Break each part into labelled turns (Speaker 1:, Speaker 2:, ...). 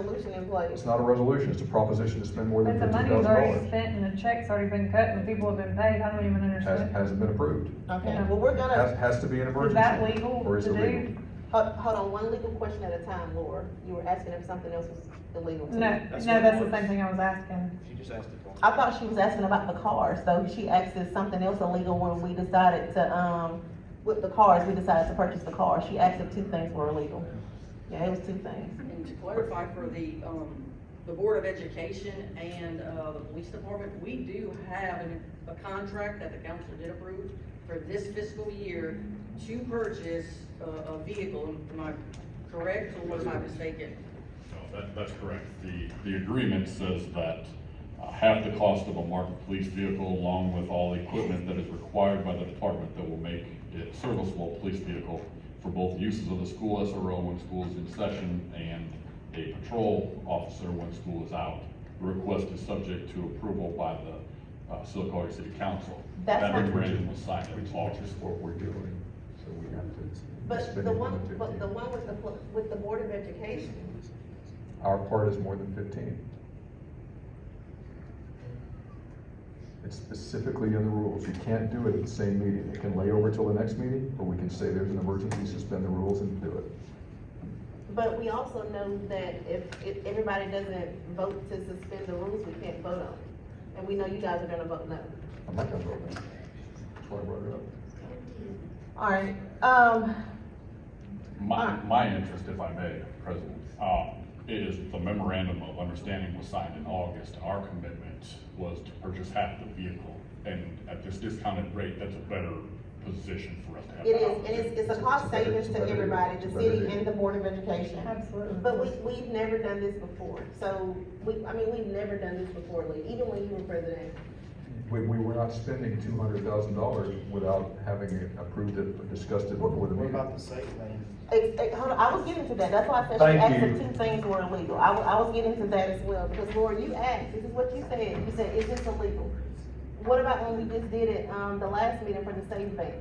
Speaker 1: in place.
Speaker 2: It's not a resolution, it's a proposition to spend more than
Speaker 3: But the
Speaker 2: fifteen thousand
Speaker 3: money's already
Speaker 2: dollars.
Speaker 3: spent and the check's already been cut and the people have been paid, I don't even
Speaker 2: Has,
Speaker 3: understand.
Speaker 2: hasn't been approved.
Speaker 1: Okay, well, we're gonna,
Speaker 2: Has, has to be an
Speaker 3: Is
Speaker 2: emergency.
Speaker 3: that legal
Speaker 2: Or
Speaker 3: to
Speaker 2: is it legal?
Speaker 3: do?
Speaker 1: hold, hold on, one legal question at a time, Laura. You were asking if something else was illegal
Speaker 3: No,
Speaker 1: too.
Speaker 3: no,
Speaker 4: That's what it
Speaker 3: that's the
Speaker 4: was.
Speaker 3: same thing I was asking.
Speaker 4: She just asked it.
Speaker 1: I thought she was asking about the cars, so she asked if something else illegal when we decided to, um, with the cars, we decided to purchase the car. She asked if two things were illegal. Yeah, it was two things.
Speaker 5: And to clarify for the, um, the Board of Education and, uh, the Police Department, we do have an, a contract that the council did approve for this fiscal year to purchase uh, a, a vehicle, am I correct or was I mistaken?
Speaker 6: No, that, that's correct. The, the agreement says that uh, half the cost of a marked police vehicle along with all the equipment that is required by the department that will make it serviceable police vehicle for both uses of the school SRO when school is in session and a patrol officer when school is out. The Request is subject to approval by the uh, Silicon Valley City Council.
Speaker 1: That's
Speaker 6: That
Speaker 1: not-
Speaker 6: memorandum was signed in
Speaker 2: Which
Speaker 6: August.
Speaker 2: is what we're doing, so we have to.
Speaker 1: But
Speaker 2: spend
Speaker 1: the
Speaker 2: it more
Speaker 1: one,
Speaker 2: than
Speaker 1: but
Speaker 2: 15.
Speaker 1: the one with the, pl- with the Board of Education,
Speaker 2: Our part is more than fifteen. It's specifically in the rules, you can't do it at the same meeting, it can lay over till the next meeting, or we can say there's an emergency, suspend the rules and do it.
Speaker 1: but we also know that if, if everybody doesn't vote to suspend the rules, we can't vote on it. And we know you guys are gonna vote no.
Speaker 2: I'm not gonna vote no. That's why I brought it up.
Speaker 1: All right, um,
Speaker 6: My,
Speaker 1: Alright.
Speaker 6: my interest, if I may, President, uh, is the memorandum of understanding was signed in August. Our commitment was to purchase half the vehicle, and at this discounted rate, that's a better position for us to have.
Speaker 1: it is, and it's, it's a cost savings to everybody, the city and the Board of Education.
Speaker 3: Absolutely.
Speaker 1: But we, we've never done this before, so, we, I mean, we've never done this before, Lee, even when you were president.
Speaker 2: We, we were not spending two hundred thousand dollars without having it approved it or discussed it before the
Speaker 4: We're
Speaker 2: meeting.
Speaker 4: about to say, man.
Speaker 1: Ex- ex- hold on, I was getting to that, that's why I said she
Speaker 2: Thank
Speaker 1: asked
Speaker 2: you.
Speaker 1: if two things were illegal, I, wa- I was getting to that as well, because Laura, you asked, this is what you said, you said, is this illegal? What about when we just did it, um, the last meeting for the state vans?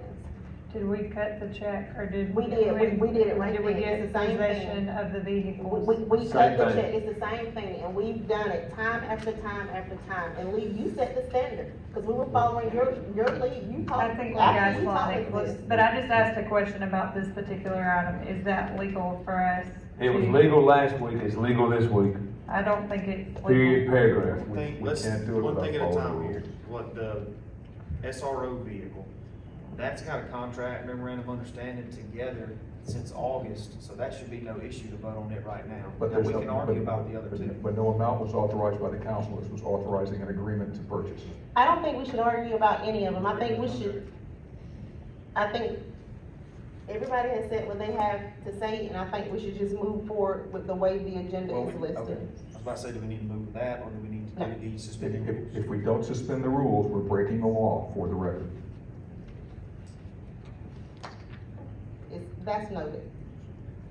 Speaker 3: Did we cut the check or did?
Speaker 1: We did. We- we did it right
Speaker 3: Did we
Speaker 1: then.
Speaker 3: get
Speaker 1: It's the same thing.
Speaker 3: possession of the
Speaker 1: We,
Speaker 3: vehicles?
Speaker 1: we, we cut
Speaker 2: Same
Speaker 1: the
Speaker 2: thing.
Speaker 1: check, it's the same thing, and we've done it time after time after time, and Lee, you set the standard, because we were following your, your lead, you talked.
Speaker 3: I think you
Speaker 1: after
Speaker 3: guys
Speaker 1: you
Speaker 3: want
Speaker 1: talked
Speaker 3: it,
Speaker 1: about
Speaker 3: but- but I just asked a question about this particular item. Is that legal for us?
Speaker 7: It was
Speaker 3: to-
Speaker 7: legal last week, it's legal this week,
Speaker 3: I don't think it's
Speaker 7: period,
Speaker 3: legal.
Speaker 7: paragraph.
Speaker 2: We-
Speaker 4: Thing,
Speaker 2: we
Speaker 4: let's,
Speaker 2: can't do it
Speaker 4: one
Speaker 2: without
Speaker 4: thing at a
Speaker 2: following the
Speaker 4: time here,
Speaker 2: rules.
Speaker 4: what the SRO vehicle, that's got a contract memorandum of understanding together since August, so that should be no issue to vote on it right now.
Speaker 2: But
Speaker 4: Now,
Speaker 2: there's
Speaker 4: we
Speaker 2: no-
Speaker 4: can argue
Speaker 2: but-
Speaker 4: about the other
Speaker 2: but-
Speaker 4: two.
Speaker 2: But no amount was authorized by the council, this was authorizing an agreement to purchase.
Speaker 1: I don't think we should argue about any of them, I think we should, I think everybody has said what they have to say, and I think we should just move forward with the way the agenda
Speaker 4: Well, we-
Speaker 1: is
Speaker 4: okay.
Speaker 1: listed.
Speaker 4: I was about to say, do we need to move with that, or do we need to
Speaker 1: No.
Speaker 4: do the
Speaker 2: If,
Speaker 4: suspended rules?
Speaker 2: if, if we don't suspend the rules, we're breaking the law for the record.
Speaker 1: It's, that's noted.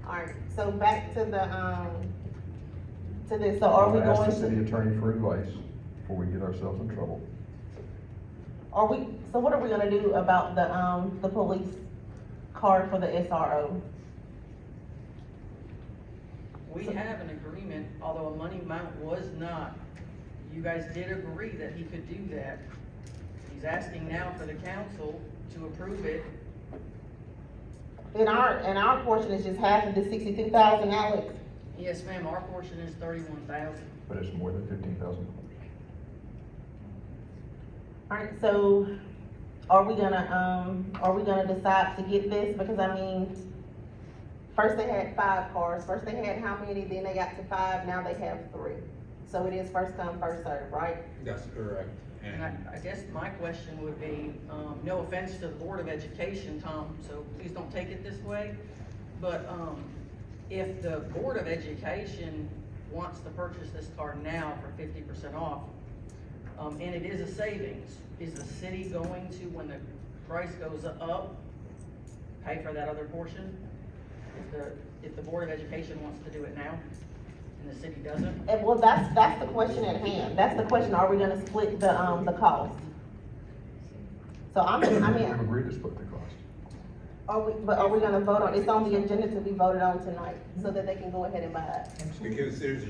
Speaker 1: Alright, so back to the, um, to this, so are we
Speaker 2: I'm gonna Ask the
Speaker 1: going
Speaker 2: city
Speaker 1: to,
Speaker 2: attorney for advice before we get ourselves in trouble.
Speaker 1: are we, so what are we gonna do about the, um, the police card for the SRO?
Speaker 5: We have an agreement, although a money amount was not, you guys did agree that he could do that. He's asking now for the council to approve it
Speaker 1: And our, and our portion is just half of the sixty-two thousand, Alex.
Speaker 5: Yes, ma'am, our portion is thirty-one thousand.
Speaker 2: But it's more than fifteen thousand.
Speaker 1: Alright, so are we gonna, um, are we gonna decide to get this, because I mean, first they had five cars, first they had how many, then they got to five, now they have three. So it is first come, first served, right?
Speaker 8: That's correct.
Speaker 5: And I, I guess my question would be, um, no offense to the Board of Education, Tom, so please don't take it this way, but, um, if the Board of Education wants to purchase this car now for fifty percent off, um, and it is a savings, is the city going to, when the price goes up, pay for that other portion? If the, if the Board of Education wants to do it now, and the city doesn't?
Speaker 1: And well, that's, that's the question at hand, that's the question, are we gonna split the, um, the cost? So I'm, I
Speaker 2: We've
Speaker 1: mean,
Speaker 2: agreed to split the cost.
Speaker 1: are we, but are we gonna vote on, it's on the agenda to be voted on tonight, so that they can go ahead and buy it?
Speaker 8: Because there's a